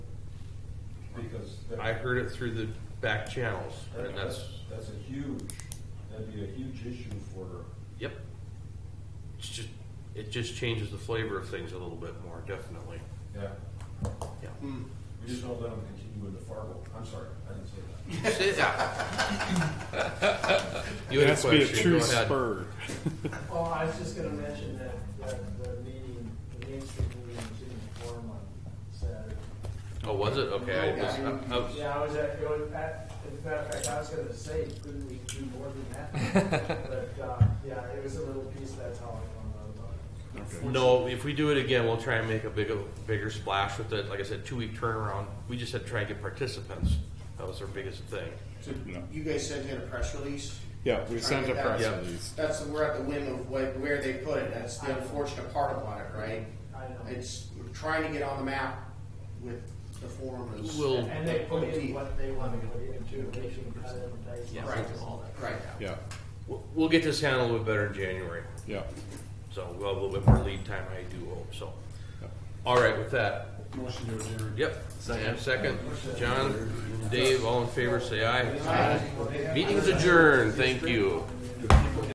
is. that- I heard it through the back channels, that- and that's, That's a huge, that'd be a huge issue for, yep. It's just, it just changes the flavor of things a little bit more, definitely. yeah, Yeah. we just don't let them continue into Fargo. I'm sorry, I didn't say that. Sit down. You It had a has to be a question, true go ahead. spur. Well, Oh, I was just gonna mention that, that the meeting, the Main Street meeting didn't form on Saturday. Oh, was it? Oh. Okay. I was- I- I was- Yeah, I was at, it was at, as a matter of fact, I was gonna say, couldn't we do more than that? But, uh, yeah, it was a little piece, that's how I found out about it. No, if we do it again, we'll try and make a bigger, bigger splash with it. Like I said, two-week turnaround. We just had to try and get participants. That was our biggest thing. So No. you guys sent in a press release? Yeah, we sent a press Yeah. release. That's, we're at the whim of what, where they put it, that's the unfortunate part about it, right? I know. It's, we're trying to get on the map with the forum is. We'll- And they put in what they wanna put in too, they should cut it and dice. Yeah. Right, right. Yeah, We'll, we'll get this handled a little bit better in January. yeah. So we'll have a little bit more lead time, I do hope, so. All right, with that, Motion to adjourn. yep. Sam, second. John, Dave, all in favor, say aye. Meeting's adjourned, thank you.